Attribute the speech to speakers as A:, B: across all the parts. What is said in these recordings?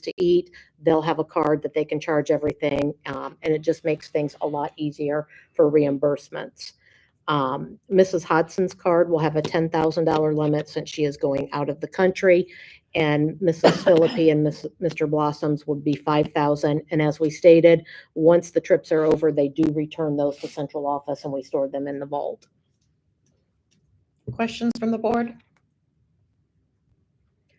A: to eat, they'll have a card that they can charge everything, um, and it just makes things a lot easier for reimbursements. Um, Mrs. Hodson's card will have a ten thousand dollar limit since she is going out of the country. And Mrs. Philippi and Miss- Mr. Blossom's would be five thousand. And as we stated, once the trips are over, they do return those to central office and we store them in the vault.
B: Questions from the board?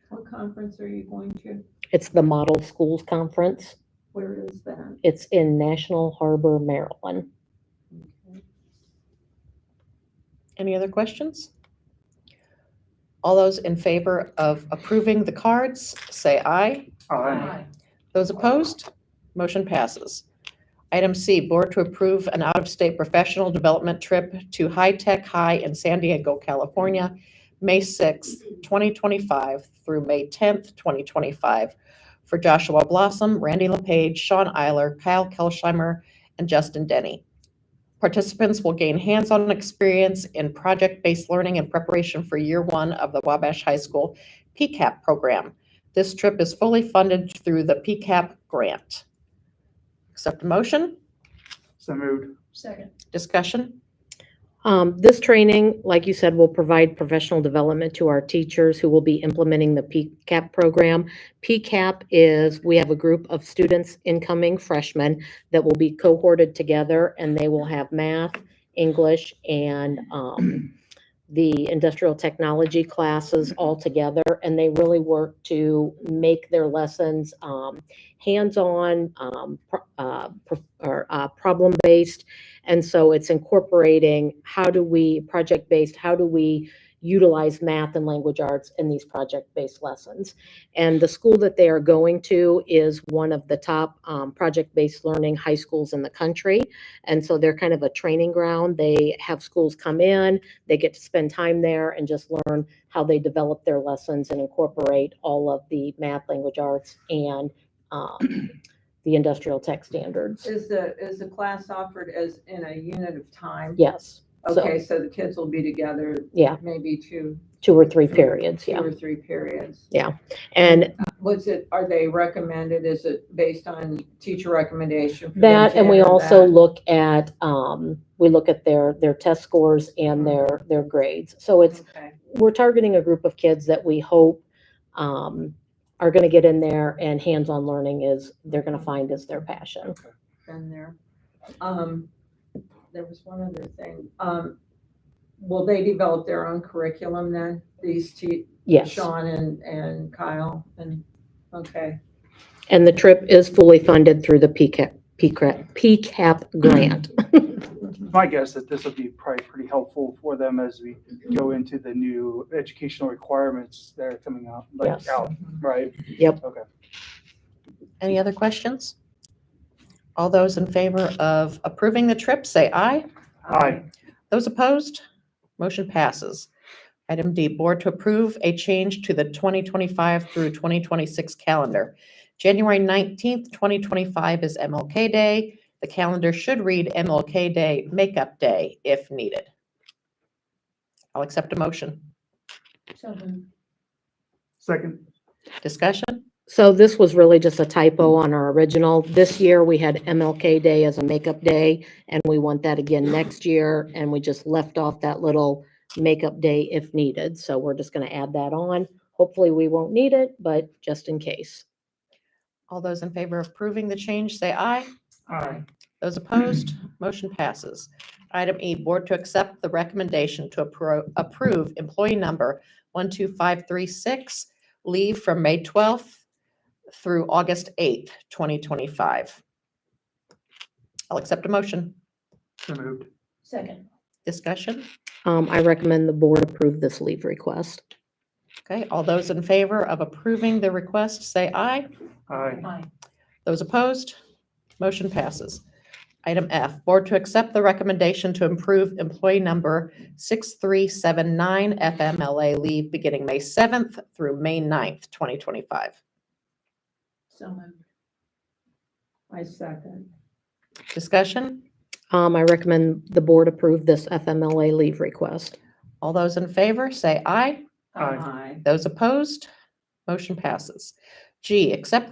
C: What conference are you going to?
A: It's the Model Schools Conference.
C: Where is that?
A: It's in National Harbor, Maryland.
B: Any other questions? All those in favor of approving the cards, say aye.
C: Aye.
B: Those opposed, motion passes. Item C, board to approve an out-of-state professional development trip to High Tech High in San Diego, California, May 6th, 2025 through May 10th, 2025, for Joshua Blossom, Randy LePage, Sean Eiler, Kyle Kelsheimer, and Justin Denny. Participants will gain hands-on experience in project-based learning in preparation for year one of the Wabash High School PCAP program. This trip is fully funded through the PCAP grant. Accept a motion?
D: So moved.
C: Second.
B: Discussion?
A: Um, this training, like you said, will provide professional development to our teachers who will be implementing the PCAP program. PCAP is, we have a group of students, incoming freshmen, that will be cohorted together and they will have math, English, and, um, the industrial technology classes all together. And they really work to make their lessons, um, hands-on, um, pro- uh, pro- or, uh, problem-based and so it's incorporating how do we, project based, how do we utilize math and language arts in these project based lessons? And the school that they are going to is one of the top um, project based learning high schools in the country. And so they're kind of a training ground. They have schools come in, they get to spend time there and just learn how they develop their lessons and incorporate all of the math, language arts, and um, the industrial tech standards.
C: Is the, is the class offered as in a unit of time?
A: Yes. so-
C: Okay, so the kids will be together
A: Yeah.
C: maybe two,
A: two or three periods,
C: two
A: yeah.
C: or three periods.
A: And
C: Was it, are they recommended? Is it based on teacher recommendation? for them
A: that,
C: to
A: and we
C: enter
A: also
C: that?
A: look at, um, we look at their, their test scores and their, their grades. So it's,
C: Okay.
A: we're targeting a group of kids that we hope, um, are gonna get in there and hands-on learning is, they're gonna find is their passion.
C: Been there. Um, there was one other thing. Um, will they develop their own curriculum then? These two,
A: Yes.
C: Sean and, and Kyle and, okay.
A: And the trip is fully funded through the PCAP, PCAP, PCAP grant.
D: My guess that this will be probably pretty helpful for them as we go into the new educational requirements that are coming out, like
A: Yes.
D: out, right?
B: Any other questions? All those in favor of approving the trip, say aye.
D: Aye.
B: Those opposed, motion passes. Item D, board to approve a change to the 2025 through 2026 calendar. January 19th, 2025 is MLK Day. The calendar should read MLK Day Makeup Day if needed. I'll accept a motion.
D: Second,
B: Discussion?
A: So this was really just a typo on our original. This year, we had MLK Day as a makeup day, and we want that again next year, and we just left off that little makeup day if needed. So we're just gonna add that on. Hopefully, we won't need it, but just in case.
B: All those in favor of approving the change, say aye.
D: aye.
B: Those opposed, motion passes. Item E, board to accept the recommendation to appro- approve employee number 12536, leave from May 12th through August 8th, 2025. I'll accept a motion.
D: So moved.
C: Second.
B: Discussion?
A: Um, I recommend the board approve this leave request.
B: Okay, all those in favor of approving the request, say aye.
D: Aye.
B: Those opposed? Motion passes. Item F, board to accept the recommendation to improve employee number 6379 FMLA leave beginning May 7th through May 9th, 2025.
C: So moved. I second.
B: Discussion?
A: Um, I recommend the board approve this FMLA leave request.
B: All those in favor, say aye.
D: Aye.
B: Those opposed? Motion passes. G, accept